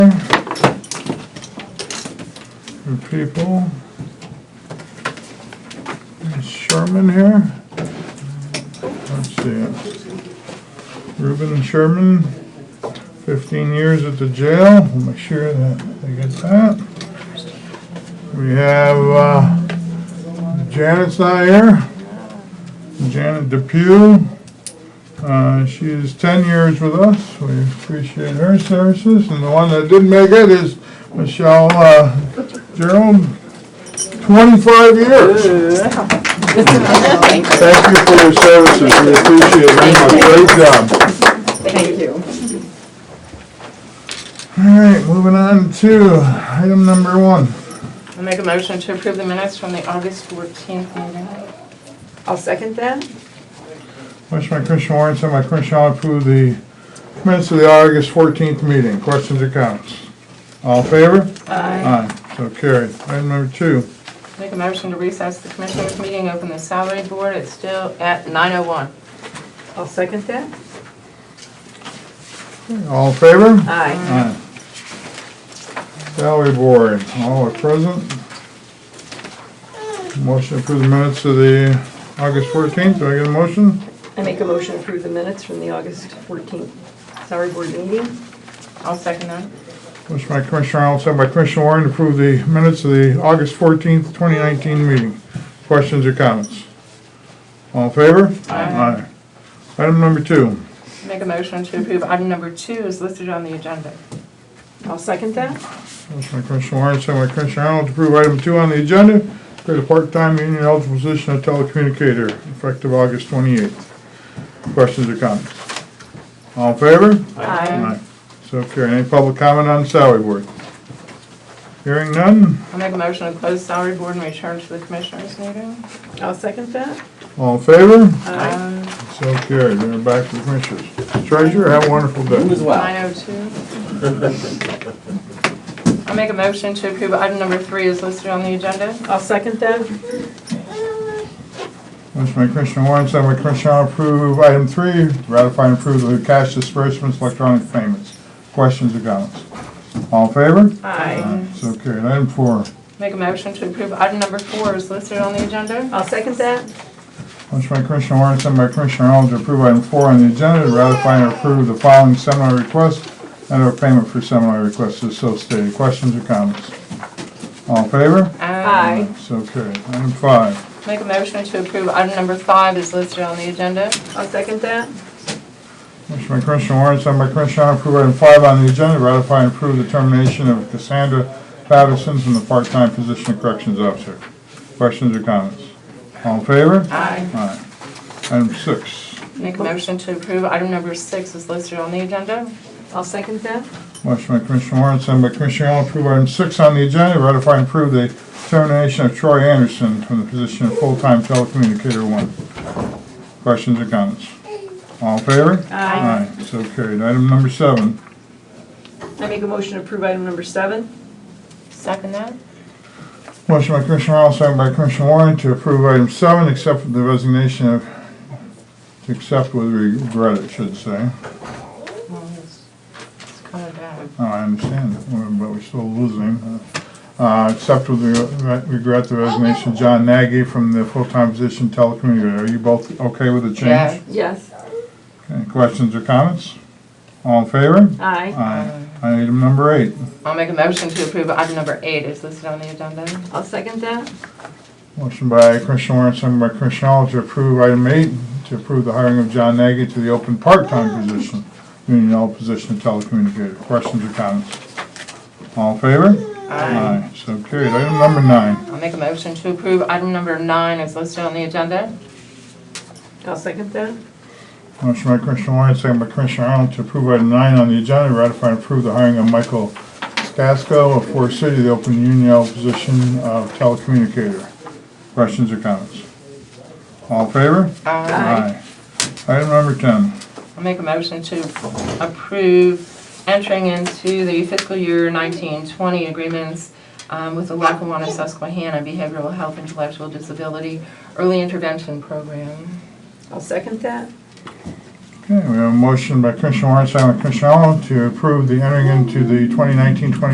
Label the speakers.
Speaker 1: for people. Is Sherman here? Let's see it. Reuben Sherman, fifteen years at the jail. We'll make sure that they get that. We have, uh, Janet's not here. Janet Depew. Uh, She is 10 years with us. We appreciate her services. And the one that didn't make it is Michelle uh, Jerome, 25 years. Thank you for your services. We appreciate it very much. Great job.
Speaker 2: Thank you.
Speaker 1: All right, moving on to item number one.
Speaker 2: I'll make a motion to approve the minutes from the August 14th meeting.
Speaker 3: I'll second that.
Speaker 1: Motion by Commissioner Warren, sent by Commissioner Arnold, approve the minutes of the August 14th meeting. Questions or comments? All in favor?
Speaker 2: Aye.
Speaker 1: Aye. So carried. Item number two.
Speaker 2: Make a motion to recess the commissioners' meeting, open the salary board, it's still at 9:01.
Speaker 3: I'll second that.
Speaker 1: All in favor?
Speaker 3: Aye.
Speaker 1: Aye. Salary Board, all are present. Motion to approve the minutes of the August 14th, do I get a motion?
Speaker 3: I make a motion to approve the minutes from the August 14th salary board meeting.
Speaker 2: I'll second that.
Speaker 1: Motion by Commissioner Arnold, second by Commissioner Warren, to approve the minutes of the August 14th, 2019 meeting. Questions or comments? All in favor? Aye. Item number two,
Speaker 2: Make a motion to approve item number two is listed on the agenda.
Speaker 3: I'll second that.
Speaker 1: motion by Commissioner Warren, second by Commissioner Arnold, to approve item two on the agenda, create a part-time union eligible position of telecommunicator, effective August 28th. Questions or comments? All in favor?
Speaker 2: Aye.
Speaker 1: So carried. Any public comment on the salary board? Hearing none?
Speaker 2: I'll make a motion to close salary board and return to the commissioners' meeting.
Speaker 3: I'll second that.
Speaker 1: All in favor?
Speaker 2: Aye.
Speaker 1: So carried. We're back to the commissioners. Treasurer, have a wonderful
Speaker 4: You as
Speaker 1: day.
Speaker 4: well.
Speaker 2: 9:02. I'll make a motion to approve item number three is listed on the agenda.
Speaker 3: I'll second that.
Speaker 1: Motion by Commissioner Warren, second by Commissioner Arnold, approve item three, ratify and approve the cash disbursements, electronic payments. Questions or comments? All in favor?
Speaker 3: Aye.
Speaker 1: So carried. Item four.
Speaker 2: Make a motion to approve item number four is listed on the agenda.
Speaker 3: I'll second that.
Speaker 1: Motion by Commissioner Warren, second by Commissioner Arnold, to approve item four on the agenda, to ratify and approve the following seminar requests and or payment for seminar requests as so stated. Questions or comments? All in favor?
Speaker 2: Aye.
Speaker 1: So carried. Item five.
Speaker 2: Make a motion to approve item number five is listed on the agenda.
Speaker 3: I'll second that.
Speaker 1: Motion by Commissioner Warren, second by Commissioner Arnold, approve item five on the agenda, ratify and approve the termination of Cassandra Patterson from the part-time position of corrections officer. Questions or comments? All in favor?
Speaker 2: Aye.
Speaker 1: Aye. Item six.
Speaker 2: Make a motion to approve item number six is listed on the agenda.
Speaker 3: I'll second that.
Speaker 1: Motion by Commissioner Warren, second by Commissioner Arnold, approve item six on the agenda, ratify and approve the termination of Troy Anderson from the position of full-time telecommunicator one. Questions or comments? All in favor?
Speaker 3: Aye.
Speaker 1: Aye, so carried. Item number seven.
Speaker 3: I make a motion to approve item number seven.
Speaker 2: Second that?
Speaker 1: Motion by Commissioner Arnold, second by Commissioner Warren to approve item seven, accept the resignation of, to accept with regret, it should say.
Speaker 2: Well, it's it's kind of bad.
Speaker 1: Oh, I understand, but we're still losing. Uh, Accept with regret- regret the resignation of John Nagy from the full-time position telecommunicator. Are you both okay with the
Speaker 2: Yeah.
Speaker 1: change?
Speaker 3: Yes.
Speaker 1: Any questions or comments? All in favor?
Speaker 3: Aye.
Speaker 1: Aye. Item number eight.
Speaker 2: I'll make a motion to approve item number eight is listed on the agenda.
Speaker 3: I'll second that.
Speaker 1: Motion by Commissioner Warren, second by Commissioner Arnold to approve item eight, to approve the hiring of John Nagy to the open part-time position, union eligible position of telecommunicator. Questions or comments? All in favor? Aye. So carried. Item number nine.
Speaker 2: I'll make a motion to approve item number nine is listed on the agenda.
Speaker 3: I'll second that.
Speaker 1: Motion by Commissioner Warren, second by Commissioner Arnold to approve item nine on the agenda, ratify and approve the hiring of Michael Stasko of Forest City, to the open union eligible position of telecommunicator. Questions or comments? All in favor?
Speaker 2: I'll
Speaker 1: Aye. Item number ten.
Speaker 2: make a motion to approve entering into the fiscal year 1920 agreements um, with the Lackawanna Susquehanna Behavioral Health Intellectual Disability Early Intervention Program.
Speaker 3: I'll second that.
Speaker 1: Okay, we have a motion by Commissioner Warren, second by Commissioner Arnold to approve the entering into the 2019-20